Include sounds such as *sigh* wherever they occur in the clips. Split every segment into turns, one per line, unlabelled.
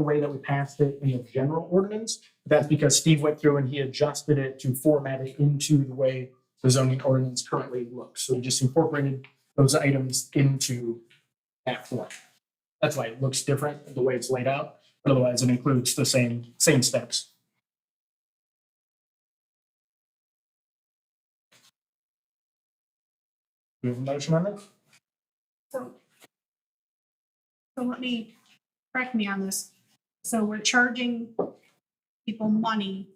the way that we passed it in the general ordinance. That's because Steve went through and he adjusted it to format it into the way the zoning ordinance currently looks. So he just incorporated those items into that form. That's why it looks different, the way it's laid out, but otherwise it includes the same, same steps. Do we have a motion on that?
So, so let me, correct me on this. So we're charging people money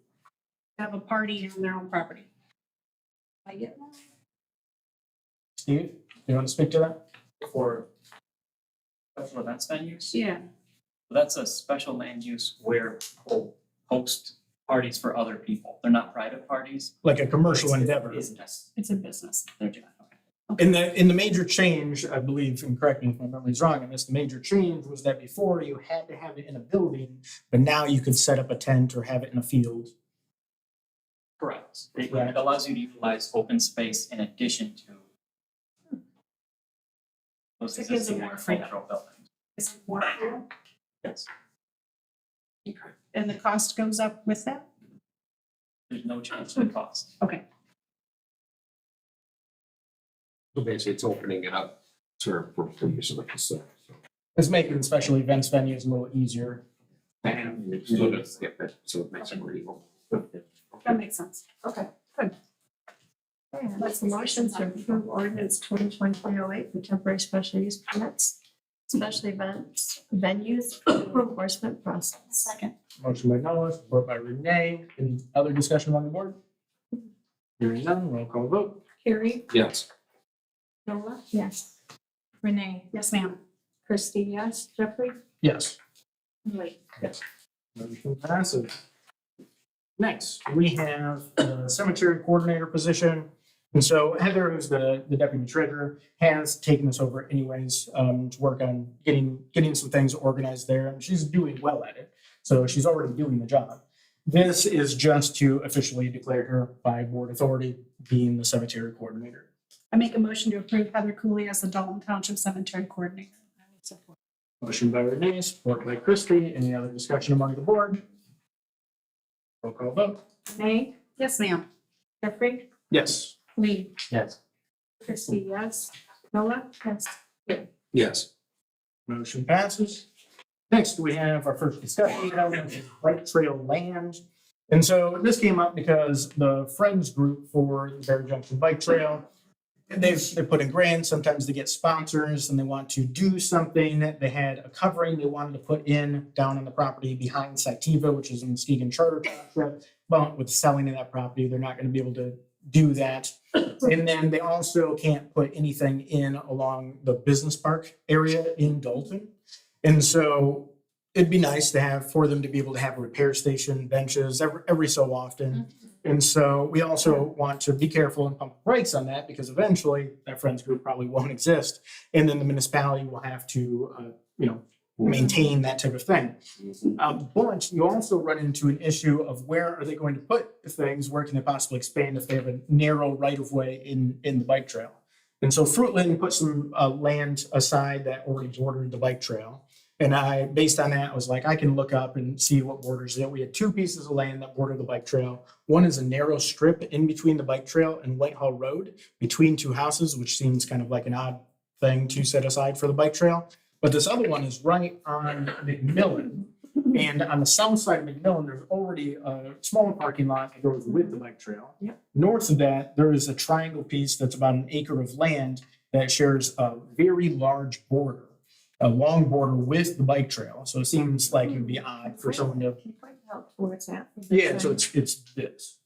to have a party on their own property. I get that?
Steve, you want to speak to that?
for special events venues.
Yeah,
That's a special land use where people host parties for other people. They're not private parties.
Like a commercial
It's-
endeavor.
It's business.
it's a business.
They're doing that. Okay.
In the, in the major change, I believe, and correct me if my memory's wrong on this, the major change was that before you had to have it in a building, but now you could set up a tent or have it in a field.
Correct. It
Right.
it allows you to utilize open space in addition to those
It Hmm. gives them
existing
more freedom.
agricultural buildings.
It's more, fair,
Yes.
and the cost goes up with that?
There's no change in cost.
So basically, it's opening it up to for the use of the facility. so.
It's making special events venues a little easier.
And it's a little bit- yeah, but- So it makes it more evil.
That makes sense.
Okay, good. Okay, I'd like the motion to approve ordinance twenty twenty-three oh eight for temporary special use permits, special events, venues, *coughs* enforcement process.
Second.
Motion by Noah, support by Renee. Any other discussion on the board? Hearing none, roll call vote.
Carrie,
Yes,
Nola,
Yes.
Renee,
Yes, ma'am.
Christie, yes, Jeffrey,
Yes.
Lee.
Motion passes. Next, we have the cemetery coordinator position. And so Heather, who's the, the deputy treasurer, has taken this over anyways, um, to work on getting, getting some things organized there. And she's doing well at it. So she's already doing the job. This is just to officially declare her by board authority being the cemetery coordinator.
I make a motion to approve Heather Cooley as the Dalton Township Cemetery Coordinator. I would support.
Motion by Renee, support by Christie. Any other discussion among the board? Roll call vote.
Renee,
Yes, ma'am.
Jeffrey,
Yes.
Lee,
Yes.
Christie, yes, Nola, yes,
yes.
Motion passes. Next, we have our first discussion item, which is Bright Trail Land. And so this came up because the Friends Group for the Bear Junction Bike Trail, they've, they put in grants, sometimes they get sponsors and they want to do something. They had a covering they wanted to put in down on the property behind Sativa, which is in Muskegon Charter Township. But with selling of that property, they're not going to be able to do that. And then they also can't put anything in along the business park area in Dalton. And so it'd be nice to have, for them to be able to have a repair station, benches every, every so often. And so we also want to be careful and pump the brakes on that because eventually that friends group probably won't exist. And then the municipality will have to, uh, you know, maintain that type of thing. Um, but you also run into an issue of where are they going to put the things? Where can they possibly expand if they have a narrow right of way in, in the bike trail? And so Fruitland put some uh, land aside that already bordered the bike trail. And I, based on that, was like, I can look up and see what borders it. We had two pieces of land that border the bike trail. One is a narrow strip in between the bike trail and Whitehall Road between two houses, which seems kind of like an odd thing to set aside for the bike trail. But this other one is right on McMillan. And on the south side of McMillan, there's already a smaller parking lot that goes with the bike trail. North of that, there is a triangle piece that's about an acre of land that shares a very large border, a long border with the bike trail. So it seems like it'd be odd for someone to.
Can you point out where it's at?
Yeah, so it's, it's this.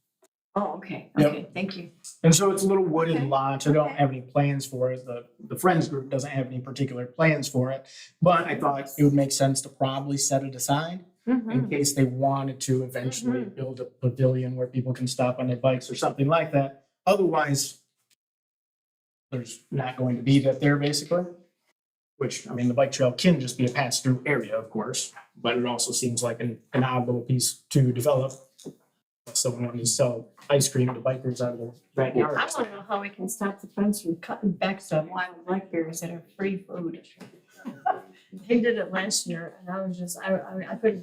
Oh, okay,
Yep.
okay, thank you.
And so it's a little wooded
Okay.
lot. I don't
Okay.
have any plans for it. The, the Friends group doesn't have any particular plans for it. But I thought it would make sense to probably set it aside. in case they wanted to eventually build a pavilion where people can stop on their bikes or something like that. Otherwise, there's not going to be that there basically. Which, I mean, the bike trail can just be a pass through area, of course, but it also seems like an, an odd little piece to develop. If Someone wanted to sell ice cream to bikers out of their
I
backyard. or
want
something.
to know how we can stop the friends from cutting back some wild blackberries that are free food. They did it last year and I was just, I, I I couldn't